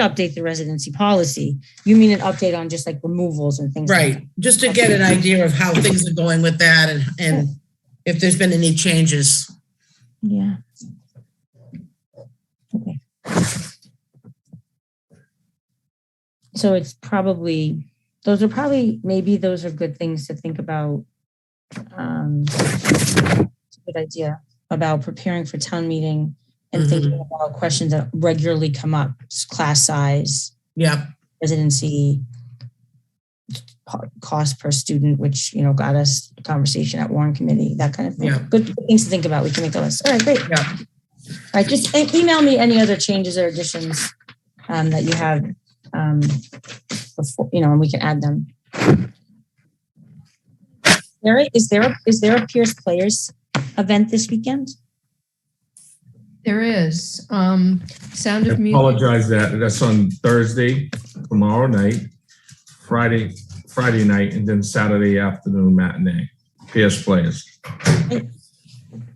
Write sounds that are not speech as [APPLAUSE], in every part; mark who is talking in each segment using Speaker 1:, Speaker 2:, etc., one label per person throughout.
Speaker 1: update the residency policy. You mean an update on just like removals and things? like
Speaker 2: Right, just to get an idea of how things are going with that and, and if there's been any changes.
Speaker 1: that? Yeah. Okay. So it's probably, those are probably, maybe those are good things to think about. Um, it's a Good idea about preparing for town meeting and thinking about questions that regularly come up, class size.
Speaker 2: Yep,
Speaker 1: residency po- cost per student, which, you know, got us a conversation at Warren Committee, that kind of thing.
Speaker 2: Yeah.
Speaker 1: Good good things to think about. We can make a list. All right, great.
Speaker 2: Yeah.
Speaker 1: All right, just e- email me any other changes or additions um, that you have, um, before, you know, and we can add them. Mary, is there, a- is there a Pierce Players event this weekend?
Speaker 3: There is. Um, Sound
Speaker 4: I
Speaker 3: of Music.
Speaker 4: Apologize that, that's on Thursday, tomorrow night, Friday, Friday night, and then Saturday afternoon matinee, PS Players.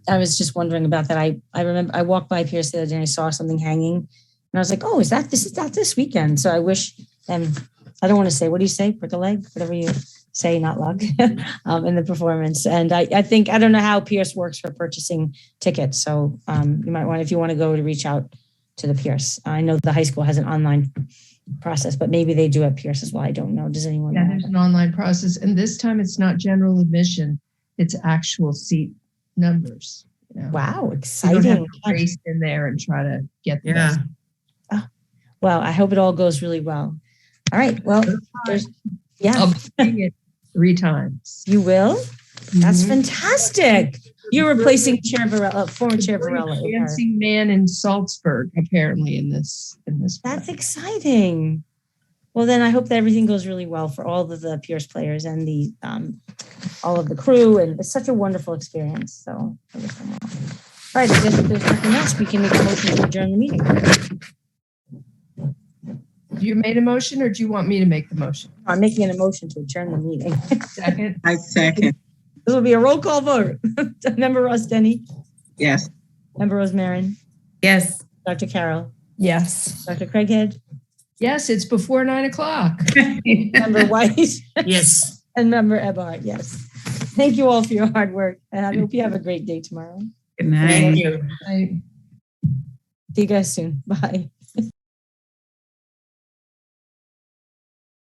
Speaker 1: I was just wondering about that. I I remember I walked by Pierce the other day and I saw something hanging, and I was like, "Oh, is that this is that this weekend?" So I wish them. I don't want to say what do you say, prick a leg, whatever you say, not lug, [LAUGHS] um, in the performance. And I I think I don't know how Pierce works for purchasing tickets, so um, you might want if you want to go to reach out to the Pierce. I know the high school has an online process, but maybe they do at Pierce as well. I don't know. Does anyone?
Speaker 3: Yeah,
Speaker 1: know?
Speaker 3: there's an online process, and this time it's not general admission; it's actual seat numbers. You know?
Speaker 1: Wow,
Speaker 3: You don't have
Speaker 1: exciting!
Speaker 3: to race in there and try to get the
Speaker 2: yeah.
Speaker 3: best.
Speaker 1: Well, I hope it all goes really well. All right. Well, there's, yeah,
Speaker 3: I'll be seeing it three times.
Speaker 1: you will. That's
Speaker 3: Mhm.
Speaker 1: fantastic. You're replacing Chair Varela, uh, former
Speaker 3: The
Speaker 1: Chair
Speaker 3: great
Speaker 1: Varela. with her.
Speaker 3: dancing man in Salzburg, apparently in this in this. play.
Speaker 1: That's exciting. Well, then I hope that everything goes really well for all of the Pierce players and the um, all of the crew. And it's such a wonderful experience. So, I wish them well. all right. I guess if there's nothing else, we can make a motion to adjourn the meeting.
Speaker 3: you made a motion, or do you want me to make the motion?
Speaker 1: I'm making an motion to adjourn the meeting. [LAUGHS]
Speaker 3: Second,
Speaker 5: I second,
Speaker 1: this will be a roll call vote. [LAUGHS] Member Ross Denny,
Speaker 5: yes.
Speaker 1: Member Rose Marin,
Speaker 5: Yes.
Speaker 1: Dr. Carroll,
Speaker 6: Yes.
Speaker 1: Dr. Craighead,
Speaker 3: yes, it's before nine o'clock.
Speaker 1: Member [LAUGHS] White.
Speaker 2: Yes.
Speaker 1: And member Ebhart, yes. Thank you all for your hard work, and I hope you have a great day tomorrow.
Speaker 5: Good night.
Speaker 2: you.
Speaker 3: I-
Speaker 1: See you guys soon. Bye.